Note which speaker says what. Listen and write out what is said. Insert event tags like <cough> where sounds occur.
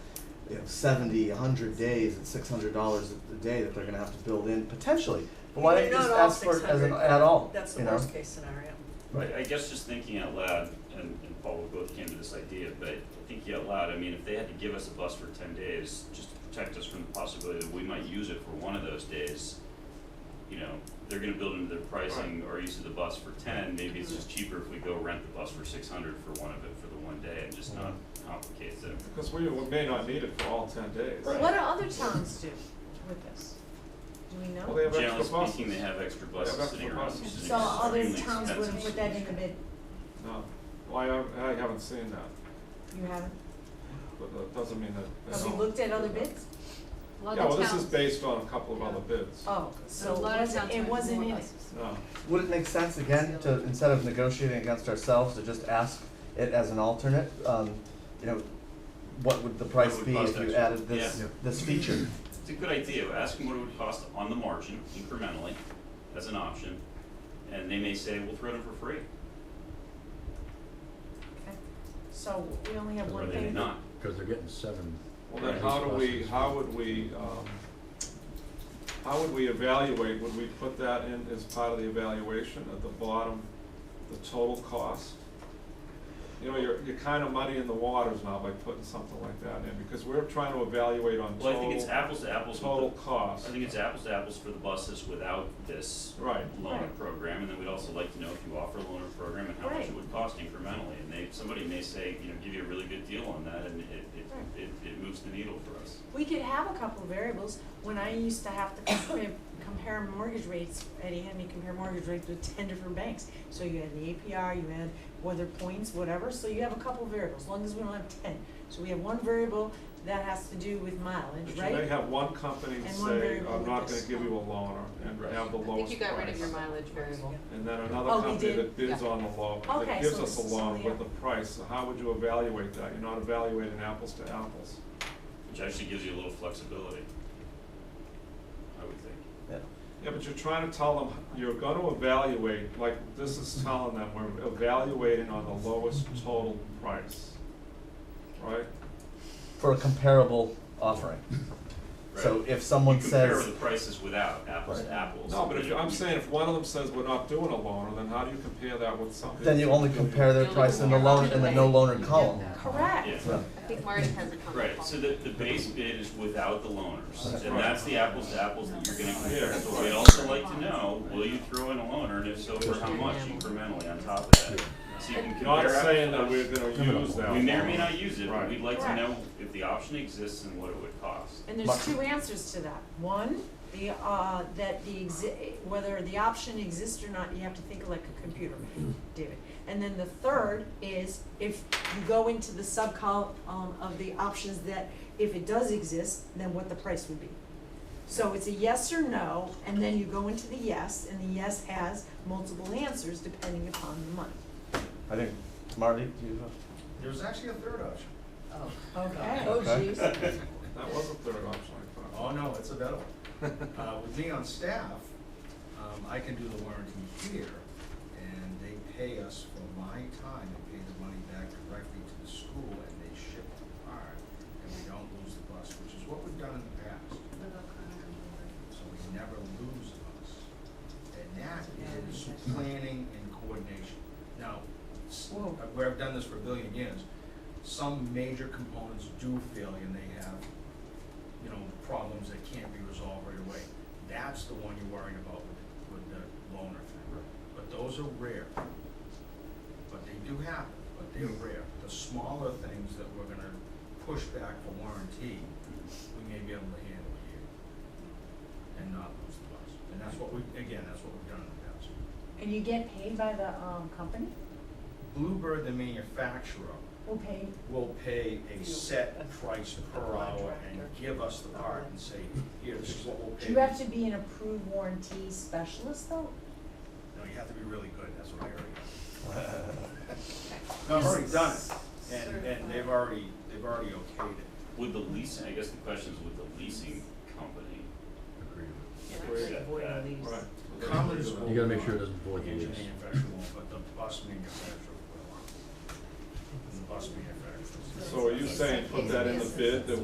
Speaker 1: you know, 70, 100 days at $600 a day that they're going to have to build in potentially. But why don't you
Speaker 2: Not
Speaker 1: just
Speaker 2: all
Speaker 1: ask for it as an
Speaker 2: 600,
Speaker 1: at all?
Speaker 2: That's the
Speaker 1: you know?
Speaker 2: worst case scenario.
Speaker 1: Right.
Speaker 3: I, I guess just thinking out loud, and, and Paul, we both came to this idea, but thinking out loud, I mean, if they had to give us a bus for ten days, just to protect us from the possibility that we might use it for one of those days, you know, they're gonna build into their pricing or use of the bus for ten, maybe it's just cheaper if we go rent the bus for six hundred for one of it for the one day and just not complicate the
Speaker 4: Because we may not need it for all ten days.
Speaker 3: Right.
Speaker 5: What do other towns do with this? Do we know?
Speaker 4: Well, they have
Speaker 3: Generally
Speaker 4: extra buses.
Speaker 3: speaking, they have extra
Speaker 4: Yeah,
Speaker 3: buses
Speaker 4: extra
Speaker 3: sitting around,
Speaker 4: buses.
Speaker 3: which is
Speaker 6: So other
Speaker 3: extremely
Speaker 6: towns wouldn't
Speaker 3: expensive
Speaker 6: put that in the
Speaker 3: solution.
Speaker 6: bid,
Speaker 4: No, well, I, haven't- I haven't seen that,
Speaker 6: you haven't,
Speaker 4: but that doesn't mean that they
Speaker 6: have you
Speaker 4: don't.
Speaker 6: looked at other bids?
Speaker 4: Yeah, well, this is based on a couple of other bids.
Speaker 6: Oh, so
Speaker 5: A lot of towns
Speaker 6: it
Speaker 5: would
Speaker 6: wasn't
Speaker 5: more
Speaker 6: in it,
Speaker 5: buses.
Speaker 4: No,
Speaker 1: Would it make sense again to, instead of negotiating against ourselves, to just ask it as an alternate? Um, you know, what would the price
Speaker 3: would
Speaker 1: be
Speaker 3: cost
Speaker 1: if you
Speaker 3: extra?
Speaker 1: added this,
Speaker 3: Yeah.
Speaker 1: this feature?
Speaker 3: It's a good idea, ask them what it would cost on the margin incrementally as an option, and they may say, we'll throw it in for free,
Speaker 6: so we only have
Speaker 3: or
Speaker 6: one
Speaker 3: they may
Speaker 6: thing.
Speaker 3: not.
Speaker 7: Because they're getting seven.
Speaker 4: well, then
Speaker 7: Right.
Speaker 4: how do we, how would we, um, how would we evaluate, would we put that in as part of the evaluation at the bottom, the total cost? You know, you're, you're kind of muddying the waters now by putting something like that in, because we're trying to evaluate on
Speaker 3: Well, I think it's
Speaker 4: total,
Speaker 3: apples to apples with the-
Speaker 4: total cost.
Speaker 3: I think it's apples to apples for the buses without this
Speaker 4: Right.
Speaker 3: loaner
Speaker 6: Right.
Speaker 3: program, and then we'd also like to know if you offer a loaner program and how much it
Speaker 6: Right.
Speaker 3: would cost incrementally, and they, somebody may say, you know, give you a really good deal on that, and it,
Speaker 6: Right.
Speaker 3: it, it, it moves the needle for us.
Speaker 6: We could have a couple of variables, when I used to have to compare, compare mortgage rates, Eddie had me compare mortgage rates with ten different banks. So you had the APR, you had weather points, whatever, so you have a couple of variables, as long as we don't have ten. So we have one variable that has to do with mileage,
Speaker 4: But
Speaker 6: right?
Speaker 4: you may have one company
Speaker 6: And one
Speaker 4: say,
Speaker 6: variable
Speaker 4: I'm not
Speaker 6: with
Speaker 4: gonna
Speaker 6: this.
Speaker 4: give you a loaner, and
Speaker 3: Right.
Speaker 4: have the
Speaker 5: I think
Speaker 4: lowest
Speaker 5: you got rid of
Speaker 4: price.
Speaker 5: your mileage variable.
Speaker 4: And then
Speaker 6: Oh,
Speaker 4: another
Speaker 6: we
Speaker 4: company
Speaker 6: did?
Speaker 4: that bids
Speaker 5: Yeah.
Speaker 4: on the loan,
Speaker 6: Okay,
Speaker 4: that gives
Speaker 6: so
Speaker 4: us a
Speaker 6: this is
Speaker 4: loan
Speaker 6: something
Speaker 4: with the price, so how would you evaluate that? You're not evaluating apples to apples.
Speaker 3: Which actually gives you a little flexibility, I would think.
Speaker 1: Yeah.
Speaker 4: Yeah, but you're trying to tell them, you're gonna evaluate, like, this is telling them, we're evaluating on the lowest total price, right?
Speaker 1: For a comparable offering. So
Speaker 3: Right.
Speaker 1: if someone
Speaker 3: You
Speaker 1: says.
Speaker 3: compare the prices without apples to
Speaker 1: Right.
Speaker 3: apples.
Speaker 4: No, but if,
Speaker 3: and
Speaker 4: you- I'm
Speaker 3: you-
Speaker 4: saying if one of them says we're not doing a loaner, then how do you compare that with something?
Speaker 1: Then you only compare their
Speaker 5: You're
Speaker 1: price in the
Speaker 5: looking
Speaker 1: loan,
Speaker 5: at
Speaker 1: in the
Speaker 5: it
Speaker 1: no
Speaker 5: like-
Speaker 1: loaner column.
Speaker 6: Correct.
Speaker 3: Yeah.
Speaker 1: So,
Speaker 5: I think Marty has a comment.
Speaker 3: Right, so the, the base bid is without the loaners,
Speaker 4: That's
Speaker 3: and
Speaker 4: right.
Speaker 3: that's the apples to apples that you're gonna compare,
Speaker 4: Yeah.
Speaker 3: so we'd also like to know, will you throw in a loaner, and if so, for how much incrementally on top of that? So you can compare.
Speaker 4: Not
Speaker 3: apples
Speaker 4: saying
Speaker 3: to
Speaker 4: that we're
Speaker 3: apples.
Speaker 4: gonna use that.
Speaker 3: We may or may
Speaker 4: loaner.
Speaker 3: not use it, but
Speaker 4: Right.
Speaker 3: we'd like to
Speaker 6: Correct.
Speaker 3: know if the option exists and what it would
Speaker 4: <laughs>
Speaker 3: cost.
Speaker 6: And there's
Speaker 1: Mark.
Speaker 6: two answers to that. One, the, uh, that the exi- whether the option exists or not, you have to think like a computer,
Speaker 1: Mm-hmm.
Speaker 6: David. And then the third is if you go into the subcolumn of the options that if it does exist, then what the price would be. So it's a yes or no, and then you go into the yes, and the yes has multiple answers depending upon the money.
Speaker 1: I think, Marty, do you have?
Speaker 8: There's actually a third option.
Speaker 6: Okay.
Speaker 5: Oh,
Speaker 1: Okay.
Speaker 5: jeez.
Speaker 4: That was a third option, I
Speaker 8: Oh,
Speaker 4: thought.
Speaker 8: no, it's available. Uh, with me on staff, um, I can do the warranty here, and they pay us for my time, they pay the money back directly to the school, and they ship the part, and we don't lose the bus, which is what we've done in the past. So we never lose the bus. And that is planning and coordination. Now, s-
Speaker 6: Whoa.
Speaker 8: uh, where I've done this for a billion years, some major components do failure and they have, you know, problems that can't be resolved right away. That's the one you're worrying about with, with the loaner thing. But those are rare. But they do happen, but they're rare. The smaller things that we're gonna push back for warranty, we may be able to handle here and not lose the bus. And that's what we, again, that's what we've done in the past.
Speaker 6: And you get paid by the, um, company?
Speaker 8: Bluebird, the manufacturer,
Speaker 6: Who paid?
Speaker 8: will pay a set price per hour and
Speaker 2: Contractor.
Speaker 8: give us the part and say, here, this is what we'll pay.
Speaker 6: Do you have to be an approved warranty specialist though?
Speaker 8: No, you have to be really good, that's what I already got. No, I've already done it, and, and they've already, they've already okayed it.
Speaker 3: Would the leasing, I guess the question is, would the leasing company agree with
Speaker 4: Yeah.
Speaker 3: accept that?
Speaker 4: Uh, Right.
Speaker 8: Cummins will
Speaker 7: You gotta make
Speaker 8: not.
Speaker 7: sure it doesn't void the
Speaker 8: Engine
Speaker 7: lease.
Speaker 8: manufacturer won't, but the bus manufacturer will. And the bus manufacturer.
Speaker 4: So are you saying put that in the bid, that